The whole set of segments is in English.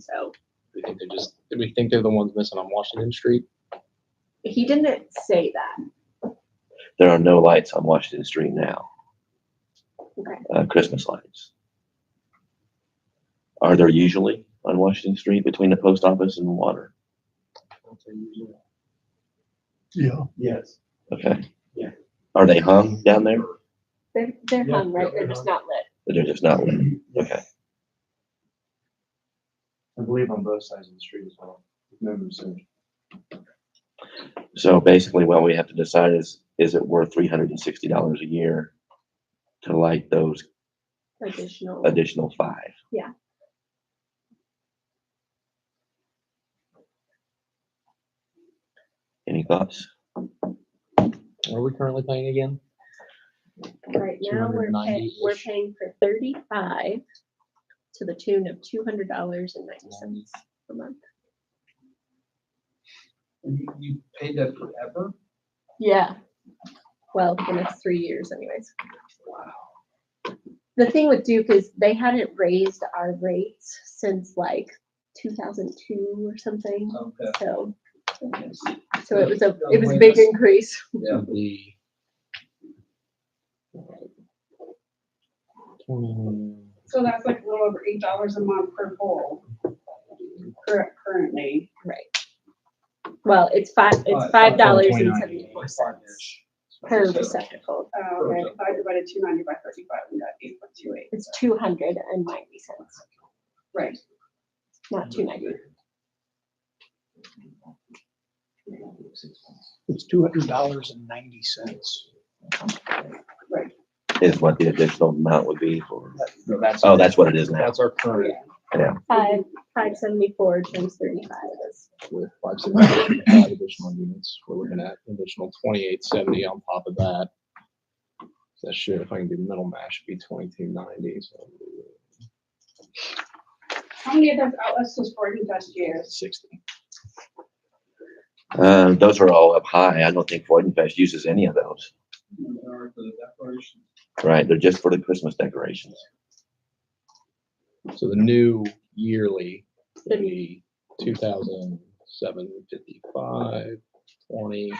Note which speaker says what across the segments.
Speaker 1: So
Speaker 2: We think they're just, did we think they're the ones missing on Washington Street?
Speaker 1: he didn't say that.
Speaker 3: There are no lights on Washington Street now,
Speaker 1: Okay.
Speaker 3: uh, Christmas lights. Are there usually on Washington Street between the post office and water?
Speaker 4: Yeah,
Speaker 5: Yes.
Speaker 3: Okay.
Speaker 5: Yeah.
Speaker 3: Are they hung down there?
Speaker 1: They're, they're
Speaker 5: Yeah,
Speaker 1: hung, right?
Speaker 5: yeah,
Speaker 1: They're just not lit.
Speaker 3: Or They're just not lit? Okay.
Speaker 5: I believe on both sides of the street as well. if memory serves.
Speaker 3: So basically what we have to decide is, is it worth three hundred and sixty dollars a year to light those
Speaker 1: Additional.
Speaker 3: additional five?
Speaker 1: Yeah.
Speaker 3: Any thoughts?
Speaker 2: What are we currently paying again?
Speaker 1: Right now, we're paying,
Speaker 2: 290-ish.
Speaker 1: we're paying for thirty-five to the tune of two hundred dollars and ninety cents a month.
Speaker 6: You, you paid that forever?
Speaker 1: Yeah. Well, for the next three years anyways. The thing with Duke is they hadn't raised our rates since like two thousand two or something,
Speaker 6: Okay.
Speaker 1: so. So it was a, it was a big increase.
Speaker 6: Yeah.
Speaker 2: The. Well,
Speaker 7: So that's like a little over eight dollars a month per pole. Current, currently.
Speaker 1: Right. Well, it's five, it's
Speaker 6: Five-
Speaker 1: five
Speaker 6: five
Speaker 1: dollars
Speaker 2: point
Speaker 1: and
Speaker 2: nine
Speaker 1: seventy-four cents
Speaker 6: Five-ish.
Speaker 1: per
Speaker 6: So,
Speaker 1: receptacle.
Speaker 7: Uh, okay, if I divided two ninety by thirty-five, we got eight point two eight.
Speaker 1: It's two hundred and ninety cents,
Speaker 7: Right.
Speaker 1: not two ninety.
Speaker 4: it's two hundred dollars and ninety cents.
Speaker 3: Is what the additional amount would be for,
Speaker 2: no, that's-
Speaker 3: oh, that's what it is now.
Speaker 2: That's our current
Speaker 1: Five, five seventy-four times thirty-five is
Speaker 2: with five seventy, five additional units. We're looking at an additional twenty-eight seventy on top of that. So That should, if I can do middle mash, be twenty-two ninety, so
Speaker 7: How many of those outlets was Gordon last year?
Speaker 2: sixty.
Speaker 3: Uh, those are all up high. I don't think Freudenfest uses any of those.
Speaker 6: And there are the declarations.
Speaker 3: Right, they're just for the Christmas decorations.
Speaker 2: So the new yearly would be two thousand seven fifty-five twenty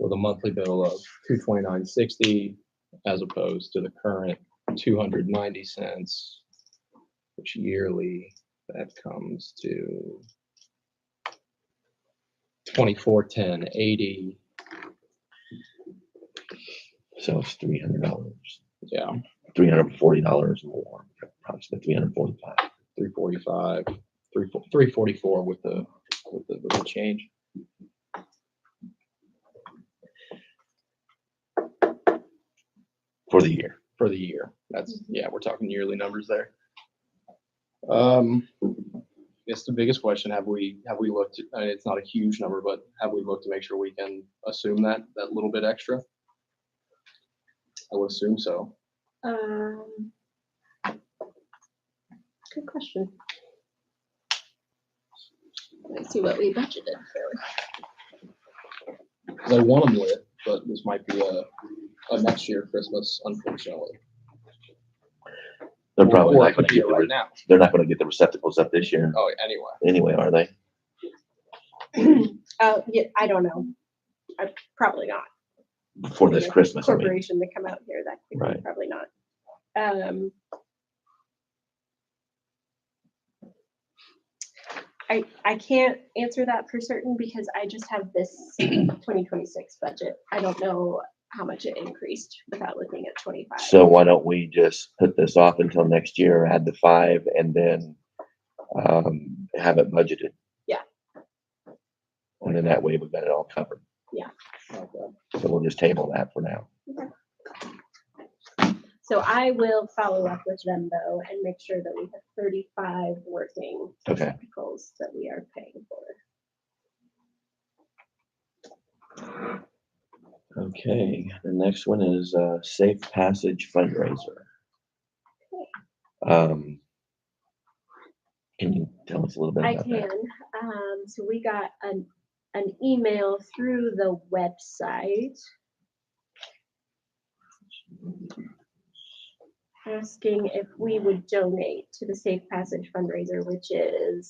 Speaker 2: with a monthly bill of two twenty-nine sixty as opposed to the current two hundred ninety cents, which yearly that comes to twenty-four ten eighty.
Speaker 3: So it's three hundred dollars,
Speaker 2: Yeah,
Speaker 3: three hundred and forty dollars more, approximately three hundred and forty-five.
Speaker 2: three forty-five, three, three forty-four with the, with the, with the change.
Speaker 3: For the year.
Speaker 2: for the year. That's, yeah, we're talking yearly numbers there. Um, I guess the biggest question, have we, have we looked, uh, it's not a huge number, but have we looked to make sure we can assume that, that little bit extra? I would assume so.
Speaker 1: Um, good question. Let's see what we budgeted for.
Speaker 2: 'Cause I want them lit, but this might be a, a next year Christmas, unfortunately.
Speaker 3: They're probably
Speaker 2: Or it
Speaker 3: not
Speaker 2: could
Speaker 3: gonna
Speaker 2: be
Speaker 3: get, the
Speaker 2: Right
Speaker 3: re-
Speaker 2: now.
Speaker 3: they're not gonna get the receptacles up this year
Speaker 2: Oh, anyway.
Speaker 3: anyway, are they?
Speaker 1: Uh, yeah, I don't know. I- Probably not.
Speaker 3: For this
Speaker 1: Yeah.
Speaker 3: Christmas, I mean.
Speaker 1: Corporation to come out here, that could be
Speaker 3: Right.
Speaker 1: probably not. Um. I, I can't answer that for certain because I just have this twenty twenty-six budget. I don't know how much it increased without looking at twenty-five.
Speaker 3: So why don't we just put this off until next year, add the five and then, um, have it budgeted?
Speaker 1: Yeah.
Speaker 3: And then that way we've got it all covered.
Speaker 2: Okay.
Speaker 3: So we'll just table that for now.
Speaker 1: So I will follow up with them though and make sure that we have thirty-five working
Speaker 3: Okay.
Speaker 1: articles that we are paying for.
Speaker 3: Okay, the next one is uh, Safe Passage fundraiser. Um, Can you tell us a little bit
Speaker 1: I
Speaker 3: about
Speaker 1: can.
Speaker 3: that?
Speaker 1: Um, so we got an, an email through the website. asking if we would donate to the Safe Passage fundraiser, which is